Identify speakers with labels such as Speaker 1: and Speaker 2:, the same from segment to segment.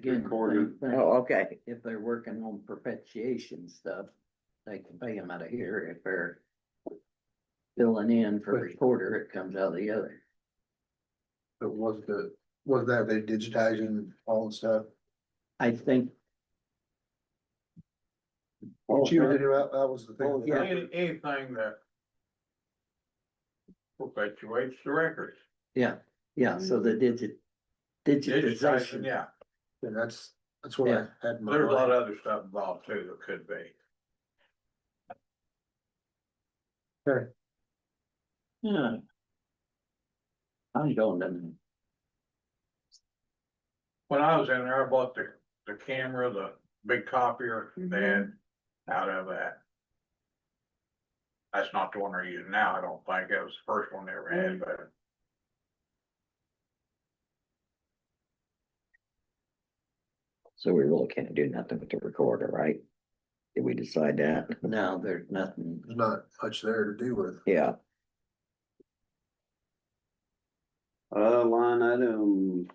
Speaker 1: doing the
Speaker 2: Recorded.
Speaker 1: same thing.
Speaker 3: Oh, okay,
Speaker 1: If they're working on perpetuation stuff, they can pay them out of here. If they're filling in for recorder, it comes out of the other.
Speaker 2: But was the, was that they digitizing all the stuff?
Speaker 1: I think,
Speaker 3: Oh,
Speaker 2: What you did, that, that was the thing.
Speaker 1: Yeah.
Speaker 4: Any- Anything that. Perpetuates the records.
Speaker 1: yeah, yeah, so the digit, digitization.
Speaker 4: Digitizing, yeah,
Speaker 2: And that's, that's what I
Speaker 1: Yeah.
Speaker 2: had. in my
Speaker 4: there's a lot
Speaker 2: mind.
Speaker 4: of other stuff involved too that could be.
Speaker 1: Yeah. I don't know.
Speaker 4: When I was in there, I bought the, the camera, the big copier, then out of that. That's not the one they're using now, I don't think, it was the first one they ever had, but.
Speaker 3: so we really can't do nothing with the recorder, right? Did we decide that?
Speaker 1: No, there's nothing.
Speaker 2: There's not much there to do with.
Speaker 3: Yeah,
Speaker 5: Uh, line item.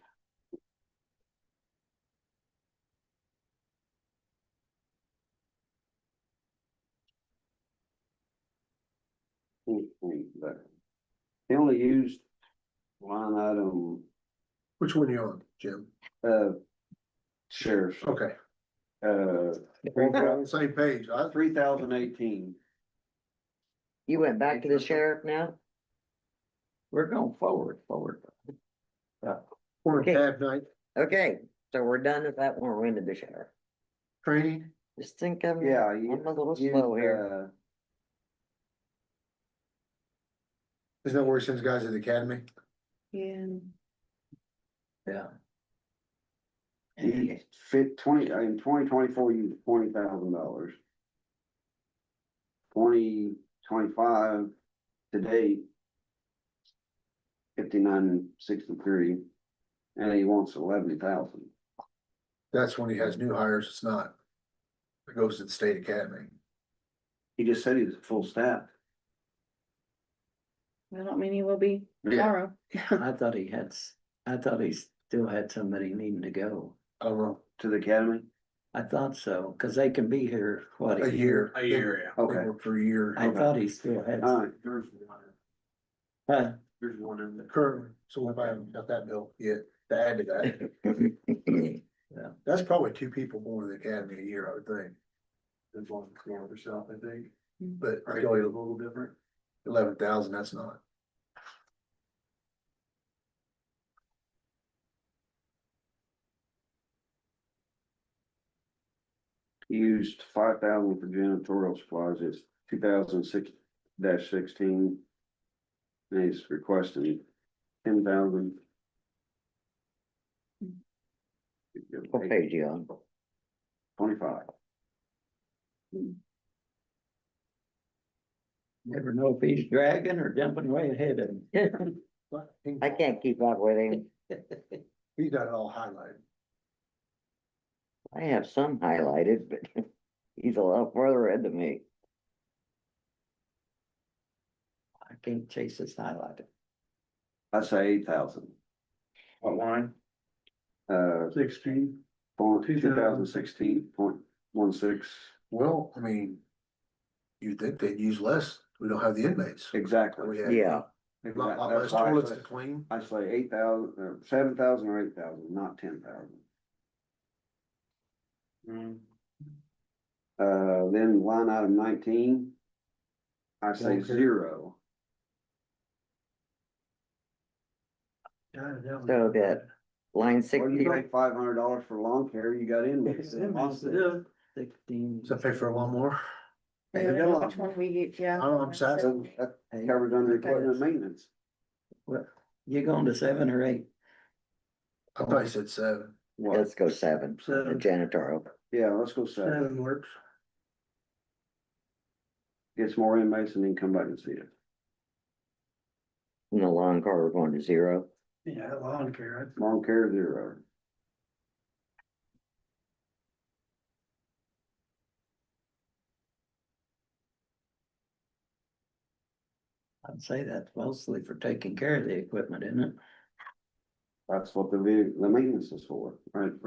Speaker 5: They only used line item,
Speaker 2: Which one you on, Jim?
Speaker 5: uh, sheriff's,
Speaker 2: Okay.
Speaker 5: uh,
Speaker 2: We're on the Same page. I,
Speaker 5: three thousand eighteen.
Speaker 3: you went back to the sheriff now?
Speaker 1: We're going forward, forward.
Speaker 2: we're on
Speaker 3: Okay.
Speaker 2: tab night
Speaker 3: Okay, so we're done with that one, we're into the sheriff.
Speaker 2: training.
Speaker 3: Just think I'm,
Speaker 5: Yeah.
Speaker 3: I'm a little
Speaker 5: used,
Speaker 3: slow here.
Speaker 5: uh,
Speaker 2: Isn't that where he sends guys to the academy?
Speaker 6: Yeah.
Speaker 1: Yeah.
Speaker 5: He uh, fit twenty, in twenty twenty-four, you twenty thousand dollars. Twenty twenty-five to date. Fifty-nine, sixty-three, and he wants eleven thousand.
Speaker 2: That's when he has new hires. It's not. It goes to the state academy.
Speaker 5: He just said he was full staff.
Speaker 6: I don't mean he will be
Speaker 2: Yeah.
Speaker 6: tomorrow.
Speaker 1: I thought he had, s- I thought he still had somebody needing to go.
Speaker 2: I don't know,
Speaker 5: To the academy?
Speaker 1: I thought so, cause they can be here, what?
Speaker 2: a year.
Speaker 4: A year, yeah.
Speaker 2: They
Speaker 5: Okay.
Speaker 2: work For a year.
Speaker 1: I thought he still had,
Speaker 5: Alright,
Speaker 2: There's one.
Speaker 1: huh,
Speaker 2: There's one in there. Currently, so we haven't got that bill yet to add to that. That's probably two people more to the academy a year, I would think. There's one for herself, I think, but I feel a little different. Eleven thousand, that's not.
Speaker 5: he used five thousand for janitorial supplies, it's two thousand six dash sixteen. And he's requesting ten thousand.
Speaker 3: What page you on?
Speaker 5: Twenty-five.
Speaker 1: never know if he's dragging or jumping way ahead of him.
Speaker 3: I can't keep up with him.
Speaker 2: He's got it all highlighted.
Speaker 3: I have some highlighted, but he's a lot further ahead than me.
Speaker 1: I can't chase his highlighter.
Speaker 5: I say eight thousand,
Speaker 4: What line?
Speaker 5: uh,
Speaker 2: Sixteen.
Speaker 5: point, two thousand sixteen point one six,
Speaker 2: Well, I mean. You'd think they'd use less. We don't have the inmates.
Speaker 5: exactly.
Speaker 2: We have
Speaker 3: Yeah,
Speaker 2: A lot, lot
Speaker 5: That's
Speaker 2: less
Speaker 5: why I
Speaker 2: toilets to
Speaker 5: say-
Speaker 2: clean.
Speaker 5: I say eight thousand, or seven thousand or eight thousand, not ten thousand. Uh, then line item nineteen. I say
Speaker 2: Okay.
Speaker 5: zero,
Speaker 3: so that line
Speaker 5: well,
Speaker 3: sixty,
Speaker 5: you paid five hundred dollars for lawn care, you got in. with it.
Speaker 1: Sixteen. Sixteen.
Speaker 2: Does that pay for a lawnmower?
Speaker 6: I
Speaker 5: Hey,
Speaker 6: don't
Speaker 5: you
Speaker 6: know
Speaker 5: got
Speaker 6: Which
Speaker 5: a lot.
Speaker 6: one we get, yeah.
Speaker 2: Oh, I'm sad.
Speaker 5: So That covers under equipment maintenance,
Speaker 1: You going to seven or eight?
Speaker 2: I probably said seven.
Speaker 5: what,
Speaker 3: let's go seven, the
Speaker 2: Seven.
Speaker 3: janitorial.
Speaker 5: yeah, let's go seven,
Speaker 2: works.
Speaker 5: gets more inmates and then come back and see it.
Speaker 3: And the lawn car, we're going to zero.
Speaker 2: Yeah, lawn care.
Speaker 5: Lawn care zero.
Speaker 1: I'd say that's mostly for taking care of the equipment, isn't it?
Speaker 5: That's what the, ve- the maintenance is for, right, right?